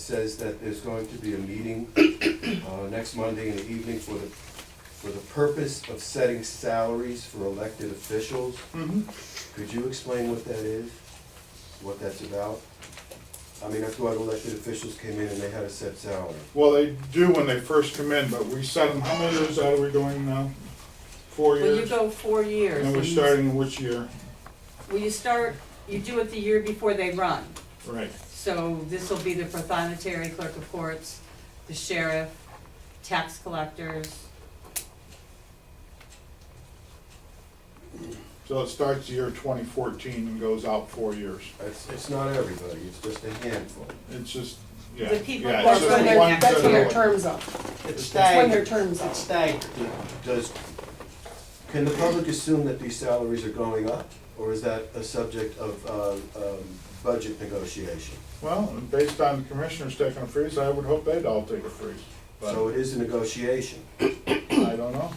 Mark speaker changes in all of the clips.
Speaker 1: says that there's going to be a meeting uh, next Monday in the evening for the, for the purpose of setting salaries for elected officials.
Speaker 2: Mm-hmm.
Speaker 1: Could you explain what that is, what that's about? I mean, I thought elected officials came in and they had a set salary.
Speaker 2: Well, they do when they first come in, but we set them, how many years out are we going now? Four
Speaker 3: Well, you
Speaker 2: years?
Speaker 3: go four years.
Speaker 2: And we're
Speaker 3: and you-
Speaker 2: starting which year?
Speaker 3: Well, you start, you do it the year before they run.
Speaker 2: Right.
Speaker 3: So this will be the prothonotary, clerk of courts, the sheriff, tax collectors.
Speaker 2: So it starts the year twenty fourteen and goes out four years.
Speaker 1: It's, it's not everybody, it's just a handful.
Speaker 2: It's just, yeah.
Speaker 3: The people
Speaker 2: yeah,
Speaker 3: who are
Speaker 2: it's just
Speaker 3: running
Speaker 2: the ones
Speaker 3: next
Speaker 4: That's
Speaker 2: that
Speaker 4: when
Speaker 2: are-
Speaker 4: their term's up.
Speaker 1: It's
Speaker 4: That's when their
Speaker 1: staggered.
Speaker 4: term's up.
Speaker 1: It's staggered. Does, can the public assume that these salaries are going up? Or is that a subject of um, um, budget negotiation?
Speaker 2: Well, based on the commissioners taking a freeze, I would hope they'd all take a freeze. But
Speaker 1: So it is a negotiation.
Speaker 2: I don't know.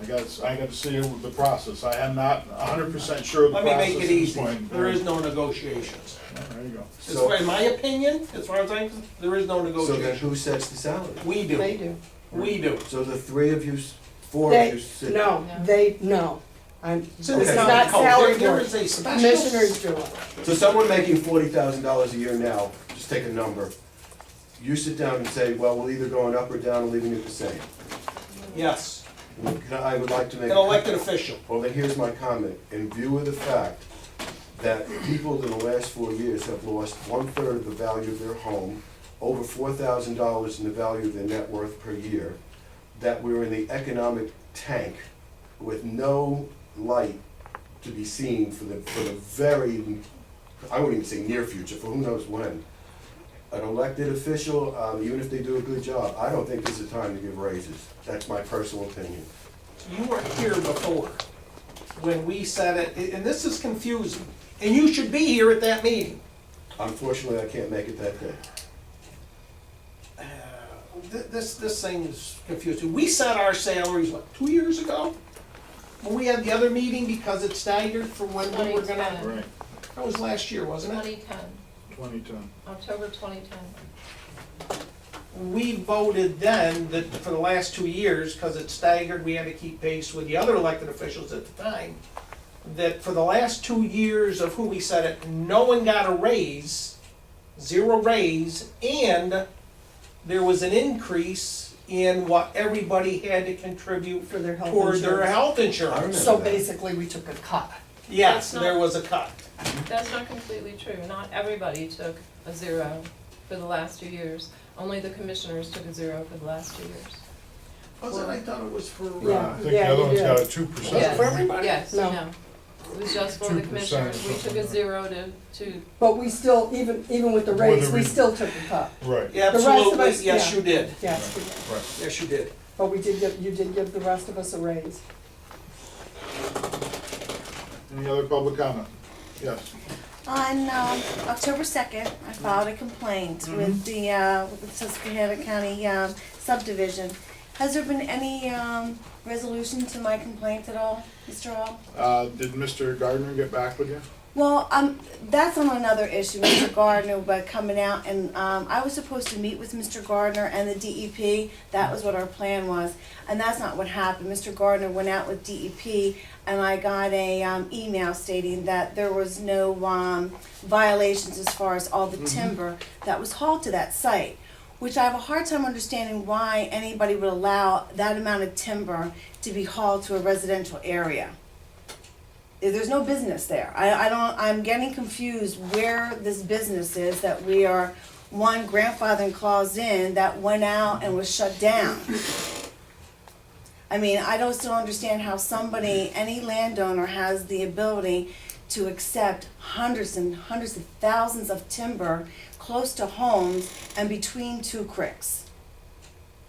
Speaker 2: I gotta, I gotta see the process. I am not hundred percent sure of the
Speaker 5: Let
Speaker 2: process.
Speaker 5: me make
Speaker 2: at
Speaker 5: it
Speaker 2: this
Speaker 5: easy.
Speaker 2: point.
Speaker 5: There is no negotiations.
Speaker 2: Well, There you go.
Speaker 5: It's
Speaker 1: So-
Speaker 5: in my opinion, as far as I'm, there is no
Speaker 1: So then
Speaker 5: negotiation.
Speaker 1: who sets the salary?
Speaker 5: We
Speaker 4: They
Speaker 5: do,
Speaker 4: do.
Speaker 5: we do.
Speaker 1: So the three of you, s- four of you
Speaker 4: They,
Speaker 1: sit.
Speaker 4: no, they, no. I'm, it's
Speaker 5: in the
Speaker 4: not
Speaker 5: county code. There-
Speaker 4: salary
Speaker 5: There
Speaker 4: board.
Speaker 5: is a special,
Speaker 4: Commissioners do it.
Speaker 1: So someone making forty thousand dollars a year now, just take a number, you sit down and say, well, we're either going up or down or leaving it the same.
Speaker 5: yes,
Speaker 1: And I would like to make.
Speaker 5: an elected official.
Speaker 1: Well, then here's my comment, in view of the fact that people in the last four years have lost one-third of the value of their home, over four thousand dollars in the value of their net worth per year, that we're in the economic tank with no light to be seen for the, for the very, I wouldn't even say near future, for who knows when. An elected official, um, even if they do a good job, I don't think this is the time to give raises, that's my personal opinion.
Speaker 5: You were here before, when we said it, and- and this is confusing. And you should be here at that meeting.
Speaker 1: Unfortunately, I can't make it that day.
Speaker 5: Uh, thi- This, this thing is confusing. We set our salaries, what, two years ago? When we had the other meeting because it staggered for when we were gonna,
Speaker 2: Right,
Speaker 5: that was last year, wasn't it?
Speaker 6: 2010,
Speaker 2: twenty ten.
Speaker 6: October 2010.
Speaker 5: we voted then that for the last two years, because it staggered, we had to keep pace with the other elected officials at the time, that for the last two years of who we said it, no one got a raise, zero raise, and there was an increase in what everybody had to contribute
Speaker 4: For their health
Speaker 5: toward their
Speaker 4: insurance.
Speaker 5: health insurance.
Speaker 4: So basically, we took a cut.
Speaker 5: Yes,
Speaker 6: That's not-
Speaker 5: there was a cut.
Speaker 6: That's not completely true. Not everybody took a zero for the last two years. Only the commissioners took a zero for the last two years.
Speaker 5: Was it, I thought it was for,
Speaker 2: I
Speaker 4: Yeah.
Speaker 5: uh,
Speaker 2: think the
Speaker 4: you
Speaker 2: other one's
Speaker 4: did.
Speaker 2: got a two percent.
Speaker 6: Yes.
Speaker 5: for everybody?
Speaker 6: Yes,
Speaker 4: No.
Speaker 6: no. It was just for
Speaker 2: 2%
Speaker 6: the
Speaker 2: or
Speaker 6: commissioners. We took
Speaker 2: something like
Speaker 6: a
Speaker 2: that.
Speaker 6: zero to, to,
Speaker 4: But we still, even, even with the raise,
Speaker 2: Whether
Speaker 4: we
Speaker 2: we-
Speaker 4: still took a cut.
Speaker 2: Right,
Speaker 5: Yeah,
Speaker 4: The rest of
Speaker 5: Absolutely,
Speaker 4: us,
Speaker 5: yes,
Speaker 4: yeah.
Speaker 5: you did.
Speaker 4: Yes, we did.
Speaker 2: right.
Speaker 5: Yes, you did.
Speaker 4: but we did give, you did give the rest of us a raise.
Speaker 2: Any other public comment? Yes.
Speaker 7: On um, October 2nd, I filed a complaint with the uh, with the Susquehanna County um, subdivision. Has there been any um, resolution to my complaint at all, Mr. Hall?
Speaker 2: Uh, did Mr. Gardner get back with you?
Speaker 7: Well, um, that's on another issue, Mr. Gardner, but coming out and, um, I was supposed to meet with Mr. Gardner and the DEP. That was what our plan was, and that's not what happened. Mr. Gardner went out with DEP and I got a, um, email stating that there was no, um, violations as far as all the timber that was hauled to that site which I have a hard time understanding why anybody would allow that amount of timber to be hauled to a residential area. There's no business there. I, I don't, I'm getting confused where this business is that we are, one grandfathering clause in that went out and was shut down. I mean, I don't still understand how somebody, any landowner has the ability to accept hundreds and hundreds of thousands of timber close to homes and between two creeks.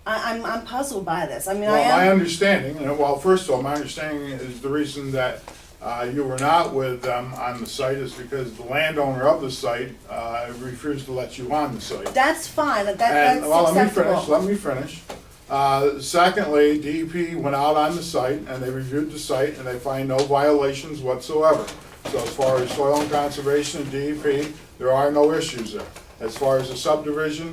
Speaker 7: I, I'm, I'm puzzled by this. I mean, I
Speaker 2: Well, my
Speaker 7: am,
Speaker 2: understanding, and well, first of all, my understanding is the reason that, uh, you were not with them on the site is because the landowner of the site, uh, refused to let you on the site.
Speaker 7: that's fine, that, that's
Speaker 2: And,
Speaker 7: acceptable.
Speaker 2: well, let me finish, let me finish. Uh, secondly, DEP went out on the site and they reviewed the site and they find no violations E whatsoever. So as far as soil and conservation and DEP, there are no issues there. As far as the subdivision,